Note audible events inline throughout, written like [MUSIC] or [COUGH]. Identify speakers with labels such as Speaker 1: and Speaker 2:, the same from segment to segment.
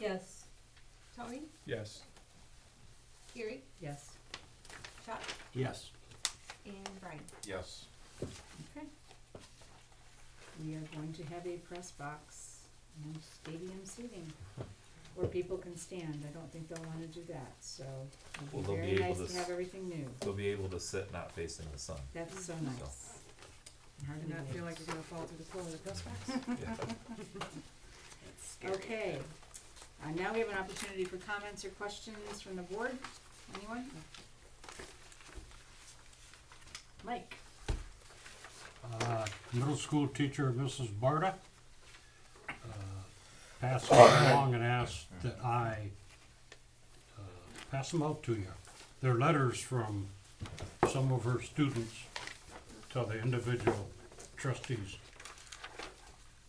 Speaker 1: Yes. Tony?
Speaker 2: Yes.
Speaker 1: Gary?
Speaker 3: Yes.
Speaker 1: Chuck?
Speaker 4: Yes.
Speaker 1: And Brian?
Speaker 2: Yes.
Speaker 3: Okay. We are going to have a press box, no stadium seating, where people can stand. I don't think they'll wanna do that, so
Speaker 5: Well,
Speaker 3: it'll
Speaker 5: they'll
Speaker 3: be
Speaker 5: be
Speaker 3: very
Speaker 5: able
Speaker 3: nice
Speaker 5: to
Speaker 3: to have
Speaker 5: s-
Speaker 3: everything new.
Speaker 5: They'll be able to sit not facing the sun.
Speaker 3: That's so
Speaker 5: Mm-hmm.
Speaker 3: nice. Hard
Speaker 6: Do
Speaker 3: to
Speaker 6: not feel like
Speaker 3: believe.
Speaker 6: you're gonna fall through the floor of the press box.
Speaker 5: Yeah.
Speaker 3: Okay, uh, now we have an opportunity for comments or questions from the board. Anyone? Mike?
Speaker 4: Uh, middle school teacher, Mrs. Barta, uh, passed them along and asked that I, uh, pass them out to you. They're letters from some of her students to the individual trustees.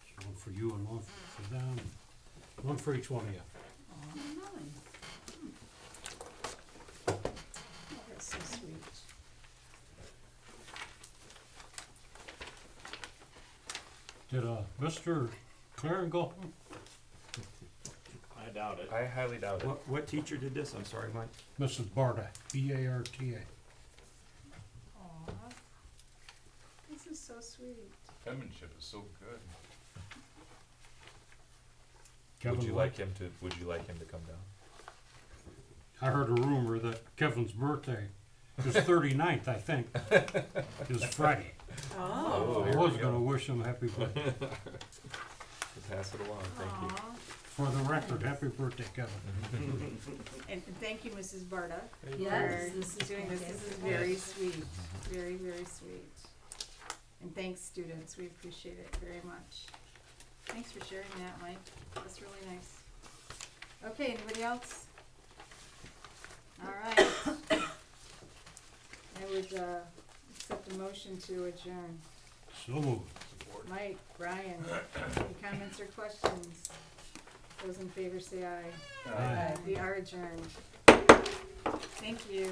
Speaker 4: So One for you and one for them, one for each one of you.
Speaker 3: Aw, Molly. Hmm. Oh, that's so sweet.
Speaker 4: Did, uh, Mr. Claren go home?
Speaker 7: I doubt it.
Speaker 2: I highly doubt it.
Speaker 7: What, what teacher did this? I'm sorry, Mike.
Speaker 4: Mrs. Barta, B A R T A.
Speaker 3: Aw, this is so sweet.
Speaker 2: Penmanship is so good.
Speaker 4: Kevin
Speaker 5: Would you
Speaker 4: White-
Speaker 5: like him to, would you like him to come down?
Speaker 4: I heard a rumor that Kevin's birthday,
Speaker 5: [LAUGHS]
Speaker 4: his 39th, I think, is Friday.
Speaker 3: Oh.
Speaker 4: I
Speaker 5: there
Speaker 4: was
Speaker 5: we
Speaker 4: going to
Speaker 5: go.
Speaker 4: wish him happy birthday.
Speaker 5: Pass it along, thank you.
Speaker 4: For the record, happy birthday, Kevin.
Speaker 3: And and thank you, Mrs. Barta,
Speaker 1: Yes, this
Speaker 3: for
Speaker 1: is
Speaker 3: doing this. This is
Speaker 1: fantastic.
Speaker 3: very sweet, very, very sweet. And thanks, students. We appreciate it very much. Thanks for sharing that, Mike. That's really nice. Okay, anybody else? All right. [COUGHS] I would, uh, accept a motion to adjourn.
Speaker 5: Mm-hmm.
Speaker 4: So moved.
Speaker 3: Mike, Brian, any comments or questions? Those in favor say aye.
Speaker 4: Aye.
Speaker 3: We are adjourned. Thank you.